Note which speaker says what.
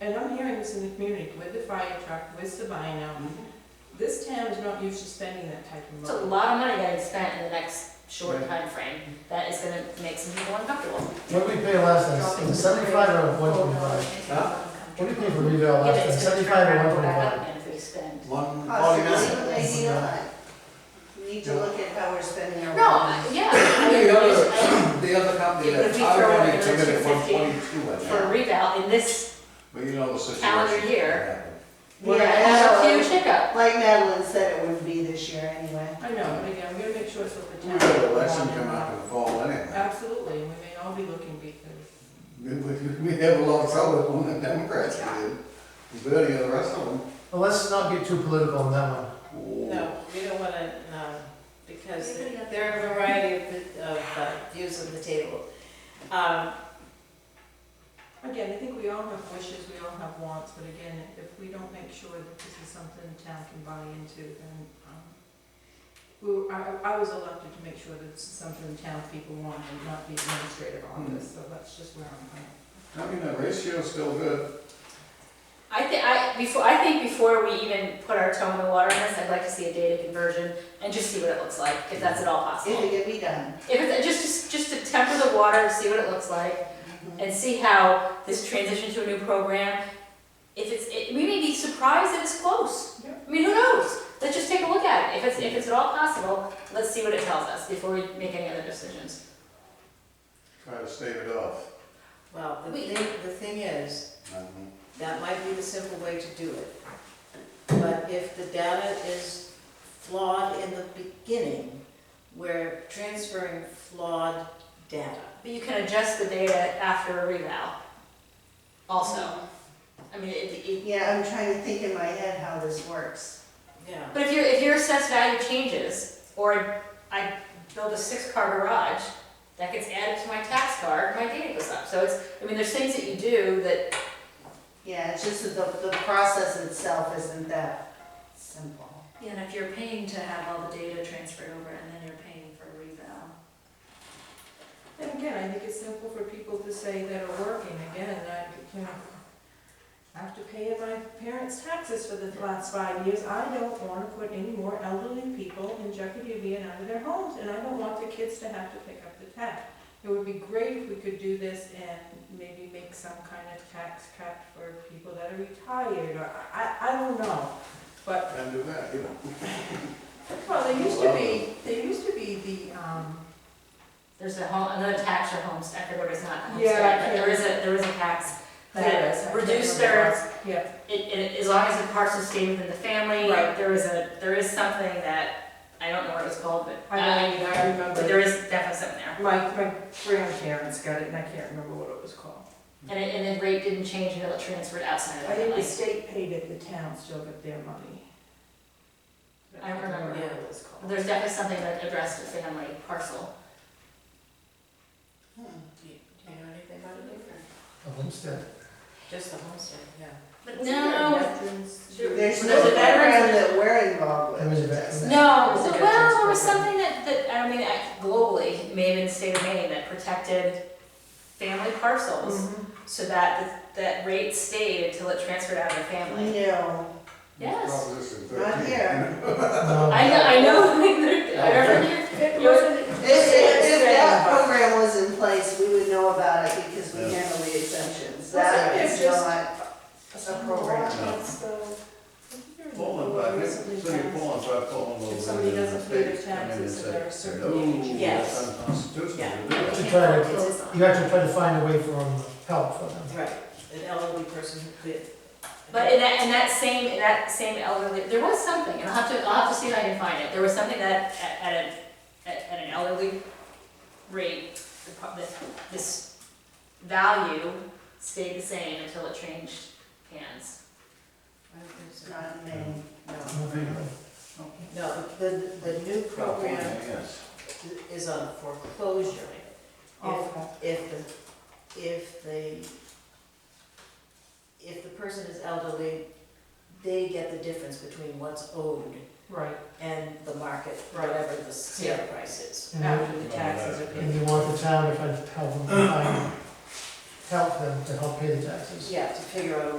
Speaker 1: and I'm hearing this in the community, with the fire truck, with Sabino, this town is not used to spending that type of
Speaker 2: Mm-hmm. It's a
Speaker 1: money.
Speaker 2: lot of money that is spent in the next short
Speaker 3: Right.
Speaker 2: time frame. that is gonna make some people uncomfortable.
Speaker 3: What did we pay last time, Was it Uh, seventy-five or one twenty-five? What did we pay for revale
Speaker 2: Yeah,
Speaker 3: last
Speaker 2: but
Speaker 3: time,
Speaker 2: it's gonna turn
Speaker 3: seventy-five
Speaker 2: around
Speaker 3: or
Speaker 2: and
Speaker 3: one
Speaker 2: go back up
Speaker 3: twenty-five?
Speaker 2: again if we spend.
Speaker 4: Oh,
Speaker 5: One forty-nine.
Speaker 4: Possibly maybe not. We Need to look at how we're spending our.
Speaker 2: No, I- yeah. I mean,
Speaker 5: The
Speaker 2: we just- I-
Speaker 5: other, the other company
Speaker 2: It would
Speaker 5: that's
Speaker 2: be throwing
Speaker 5: already
Speaker 2: another
Speaker 5: committed one
Speaker 2: 250
Speaker 5: twenty-two in
Speaker 2: For a
Speaker 5: there,
Speaker 2: reval in this,
Speaker 5: but you know the situation.
Speaker 2: Calendar year.
Speaker 4: Yeah,
Speaker 2: we're gonna have a huge
Speaker 4: Madeline-
Speaker 2: hiccup.
Speaker 4: Like Madeline said, it would be this year anyway.
Speaker 1: I know, but again, I'm gonna make sure it's what the town.
Speaker 5: We got an election coming up in the fall anyway.
Speaker 1: Absolutely, and we may all be looking because,
Speaker 5: We, we- we have a lot of trouble with the Democrats, we do. But any of the rest of them.
Speaker 3: Well, let's not get too political on that one.
Speaker 6: No, we don't want to, no, because there are a variety of, of uh, views on the table. Um,
Speaker 1: again, I think we all have wishes, we all have wants, but again, if we don't make sure that this is something the town can buy into, then, um, we, were- I, I was elected to make sure that this is something the town people want and not the administrative office, so that's just where I'm at.
Speaker 5: I mean, the ratio's still good.
Speaker 2: I think, I, before, I think before we even put our toe in the water on this, I'd like to see a data conversion and just see what it looks like, if that's at all possible.
Speaker 4: If it could be done.
Speaker 2: If it's just, just, just to temper the water, and see what it looks like, and see how this transition to a new program, if it's, it, we may be surprised that it's close.
Speaker 1: Yeah.
Speaker 2: I mean, who knows? Let's just take a look at it. If it's, if it's at all possible, let's see what it tells us before we make any other decisions.
Speaker 5: Try to stave it off.
Speaker 6: well, the
Speaker 2: We-
Speaker 6: thing, the thing is,
Speaker 5: Um,
Speaker 6: that might be the simple way to do it. But if the data is flawed in the beginning, we're transferring flawed data.
Speaker 2: But you can adjust the data after a reval also. I mean, it, it,
Speaker 4: Yeah, I'm trying to think in my head how this works.
Speaker 6: Yeah.
Speaker 2: but if your, if your assessed value changes, or I build a six-car garage, that gets added to my tax card, my data goes up. So it's, I mean, there's things that you do that
Speaker 4: Yeah, it's just that the, the process itself isn't that simple.
Speaker 7: Yeah, and if you're paying to have all the data transferred over and then you're paying for a reval.
Speaker 1: And again, I think it's simple for people to say that are working, again, I, you know, I have to pay my parents' taxes for the last five years, I don't wanna put any more elderly people in jeopardy of being out of their homes, and I don't want the kids to have to pick up the tax. It would be great if we could do this and maybe make some kind of tax cut for people that are retired, or, I, I don't know. But
Speaker 5: And do that, you know.
Speaker 1: Well, there used to be, there used to be the, um,
Speaker 2: There's a home, another tax or homestead, I forget what it's not,
Speaker 1: Yeah, I
Speaker 2: homestead,
Speaker 1: can't
Speaker 2: but there is a, there is a tax
Speaker 1: There is, I
Speaker 2: that
Speaker 1: can't
Speaker 2: reduced
Speaker 1: remember.
Speaker 2: their,
Speaker 1: yeah,
Speaker 2: it, it, as long as the parcel stayed within the family,
Speaker 1: Right.
Speaker 2: there is a, there is something that, I don't know what it was called, but,
Speaker 1: I know,
Speaker 2: uh,
Speaker 1: I remember.
Speaker 2: but there is definitely something there.
Speaker 1: My, my grandparents got it, and I can't remember what it was called.
Speaker 2: And it, and the rate didn't change until it transferred outside of the
Speaker 1: I think the
Speaker 2: family.
Speaker 1: state paid it, the town still got their money.
Speaker 2: I don't remember.
Speaker 1: what it was called.
Speaker 2: There's definitely something that addressed the family parcel.
Speaker 6: Do you do you know anything about it, Luther?
Speaker 3: A homestead.
Speaker 6: Just the homestead, yeah.
Speaker 2: But
Speaker 1: Wasn't there
Speaker 2: no,
Speaker 1: veterans-
Speaker 4: There's
Speaker 2: Well,
Speaker 4: no
Speaker 2: there's a
Speaker 4: program
Speaker 2: veterans-
Speaker 4: that we're involved
Speaker 3: There is a
Speaker 4: with.
Speaker 3: veterans-
Speaker 2: No,
Speaker 1: Was
Speaker 2: so,
Speaker 1: it
Speaker 2: well,
Speaker 1: just
Speaker 2: there was
Speaker 1: for-
Speaker 2: something that, that, I mean, I- globally, maybe in the state of Maine, that protected family parcels
Speaker 1: Mhm.
Speaker 2: so that, the- that rate stayed until it transferred out of the family.
Speaker 4: No,
Speaker 2: Yes.
Speaker 5: Proposition
Speaker 4: not
Speaker 5: 13.
Speaker 4: here.
Speaker 3: No.
Speaker 2: I know, I
Speaker 3: Oh,
Speaker 2: know, I remember,
Speaker 1: It wasn't-
Speaker 4: If, if, if that program was in place, we would know about it because we
Speaker 5: Yeah.
Speaker 4: handle the exemptions.
Speaker 1: Wasn't
Speaker 4: That
Speaker 1: there
Speaker 4: is
Speaker 1: just-
Speaker 4: not a program.
Speaker 1: It's, uh,
Speaker 5: Poland, but I think, so you're Poland, but Poland will.
Speaker 1: If somebody doesn't pay their
Speaker 5: States come in and
Speaker 1: taxes,
Speaker 5: say,
Speaker 1: there are certain
Speaker 5: "No,
Speaker 1: changes."
Speaker 6: Yes.
Speaker 5: That's unconstitutional. to do
Speaker 3: You
Speaker 5: that."
Speaker 3: have to try to, you have to try to find a way for them, help for them.
Speaker 6: Right, an elderly person who could.
Speaker 2: but in that, in that same, in that same elderly, there was something, and I'll have to, I'll have to see if I can find it, there was something that, at, at an, at, at an elderly rate, the, pro- this, this value stayed the same until it changed hands.
Speaker 6: I don't think so.
Speaker 4: Not in Maine.
Speaker 6: No, the, the new program
Speaker 5: California, yes.
Speaker 6: is on foreclosure. If,
Speaker 1: Oh,
Speaker 6: if the, if the, if the person is elderly, they get the difference between what's owed
Speaker 1: Right,
Speaker 6: and the market,
Speaker 1: Right.
Speaker 6: whatever the sale price is.
Speaker 3: And
Speaker 1: after the taxes are
Speaker 3: you-
Speaker 1: paid.
Speaker 3: and you want the town to find, help them, find, help them to help pay the taxes.
Speaker 6: Yeah, to figure out a